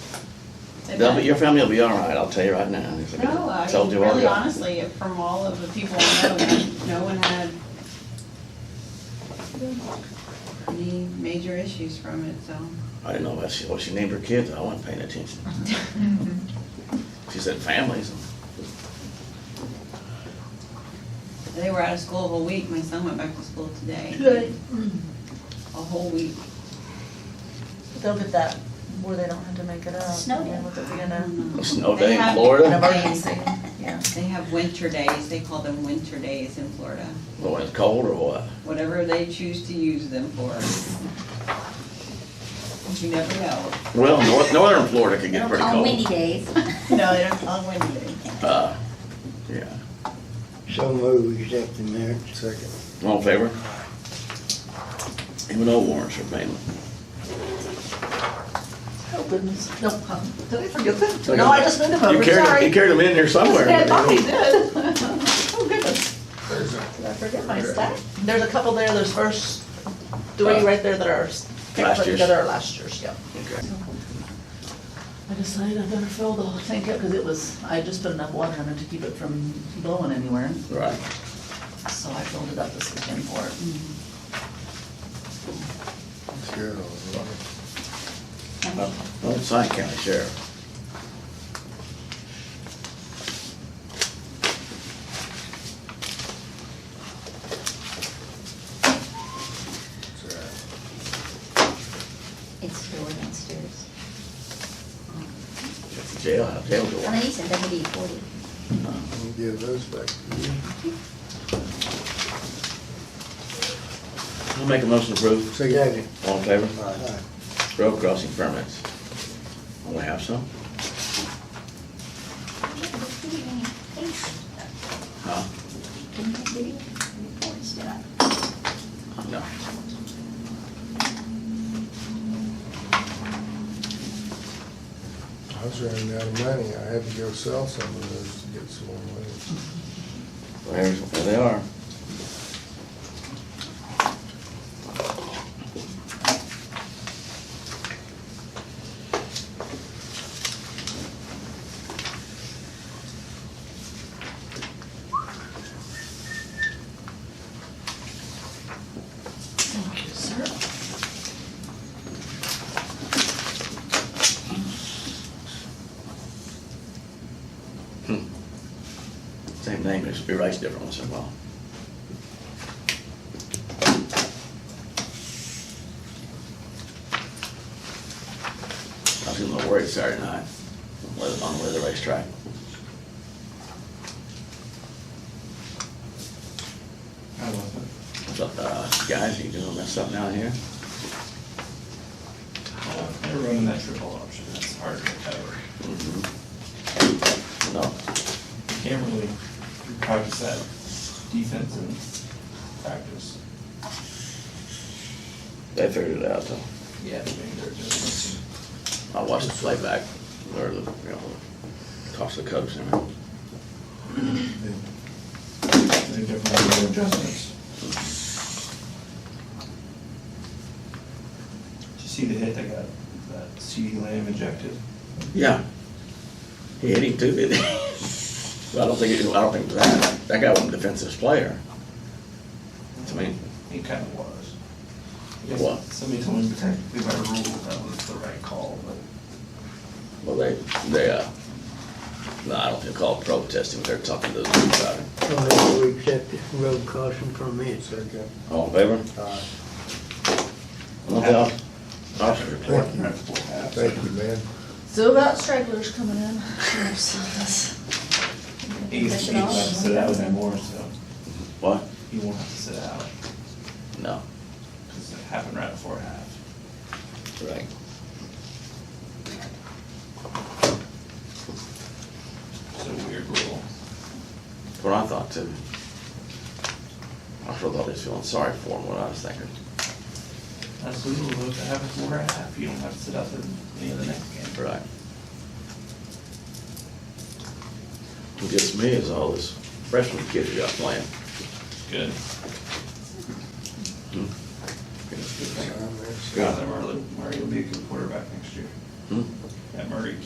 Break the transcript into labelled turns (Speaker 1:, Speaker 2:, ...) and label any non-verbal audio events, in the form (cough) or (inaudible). Speaker 1: They'll be, your family will be all right, I'll tell you right now. It's like I
Speaker 2: No, I
Speaker 1: told
Speaker 2: mean,
Speaker 1: you where
Speaker 2: really
Speaker 1: we're going.
Speaker 2: honestly, from all of the people I know, no one had any major issues from it, so.
Speaker 1: I didn't know what she, what she named her kids, I wasn't paying
Speaker 2: (laughs)
Speaker 1: attention. She said families.
Speaker 2: They were out of school a whole week. My son went back to school today.
Speaker 3: Good.
Speaker 2: A whole week.
Speaker 3: They'll get that, where they don't have to make it up.
Speaker 4: Snow day.
Speaker 3: Yeah, what they're
Speaker 2: I
Speaker 3: gonna-
Speaker 2: don't know.
Speaker 1: Snow
Speaker 2: They
Speaker 1: day in
Speaker 2: have-
Speaker 3: An
Speaker 1: Florida,
Speaker 3: emergency, yeah.
Speaker 2: They have winter days. They call them winter days in Florida,
Speaker 1: Well, when it's cold or what?
Speaker 2: whatever they choose to use them for. You never know.
Speaker 1: Well, north, northern Florida can
Speaker 4: They
Speaker 1: get
Speaker 4: don't
Speaker 1: pretty
Speaker 4: call them windy
Speaker 1: cold.
Speaker 4: days.
Speaker 2: No, they don't call them winter days.
Speaker 1: Uh, Yeah,
Speaker 5: So move, we accept the mayor. Second.
Speaker 1: all in favor? Even though warrants are paying.
Speaker 3: Oh, goodness. No, huh. did I forget
Speaker 1: Look
Speaker 3: that?
Speaker 1: at
Speaker 3: No, I
Speaker 1: that.
Speaker 3: just moved
Speaker 2: Oh,
Speaker 3: them
Speaker 1: Oh, You
Speaker 3: over,
Speaker 1: carried, you
Speaker 3: sorry.
Speaker 1: carried them in there somewhere.
Speaker 3: Yeah, I thought we
Speaker 1: Well,
Speaker 3: did. Oh, goodness. Did I forget my stack? There's a couple there, there's first, three right there that are
Speaker 1: Last
Speaker 3: picked put
Speaker 1: year's.
Speaker 3: together are last year's, yeah.
Speaker 1: Okay.
Speaker 3: I decided I better fill the tank up because it was, I just put enough water in it to keep it from blowing anywhere.
Speaker 1: Right.
Speaker 3: So I filled it up this weekend for it.
Speaker 1: Well, it's Lyon County Sheriff.
Speaker 4: (laughs) It's still downstairs.
Speaker 1: Jail, jail door.
Speaker 4: I mean, he said that would be forty.
Speaker 5: Give those back to you.
Speaker 1: I'll make a motion to approve.
Speaker 5: Second.
Speaker 1: All in favor?
Speaker 5: Aye.
Speaker 1: Road crossing permits. We have some? Huh?
Speaker 4: Didn't I give you reports, did I?
Speaker 1: No.
Speaker 6: I was running out of money, I had to go sell some of those to get some more money.
Speaker 1: There's, there they are.
Speaker 3: Thank you, sir.
Speaker 1: Same name, just be raised different once in a while. I was getting a little worried Saturday night, whether- on the way to the racetrack. I thought, uh, guys, you doing mess up down here?
Speaker 7: They're running that triple option, that's hard to cover.
Speaker 1: No,
Speaker 7: You Can't really practice that defense in practice.
Speaker 1: they figured it out though.
Speaker 7: Yeah. They're just,
Speaker 1: I watched the playback, or the, you know, toss the coach and everything.
Speaker 7: they're definitely doing adjustments. Did you see the hit that got, that CD Lamb ejected?
Speaker 1: Yeah. He hit him too, didn't he? (laughs) Well, I don't think, it- I don't think that, that guy wasn't a defensive player. To me,
Speaker 7: He kind of was.
Speaker 1: It was.
Speaker 7: Somebody told me technically by rule that was the right call, but
Speaker 1: well, they, they, uh, no, I don't think call it protesting, they're talking to the dude about it.
Speaker 5: So move, we accept the road caution permits.
Speaker 6: Second.
Speaker 1: All in favor?
Speaker 6: Aye.
Speaker 1: Nothing else? Officer report.
Speaker 6: Thank you.
Speaker 7: Full half.
Speaker 6: Thank you, man.
Speaker 3: Still got stragglers coming in. Sheriff's office.
Speaker 7: He used to be, have to sit out anymore, so
Speaker 1: What?
Speaker 7: he won't have to sit out,
Speaker 1: No.
Speaker 7: because it happened right before half.
Speaker 1: Right.
Speaker 7: It's a weird rule.
Speaker 1: That's what I thought too. I sure thought he was feeling sorry for him, what I was thinking.
Speaker 7: That's legal, though, if it happens before half, you don't have to sit out the, the next game.
Speaker 1: Right. What gets me is all this freshman kids you got playing.
Speaker 7: Good.
Speaker 6: Aye, man.
Speaker 1: Hmm?
Speaker 7: Scott Murray, Murray will be a good quarterback next year.
Speaker 1: Hmm?
Speaker 7: That Murray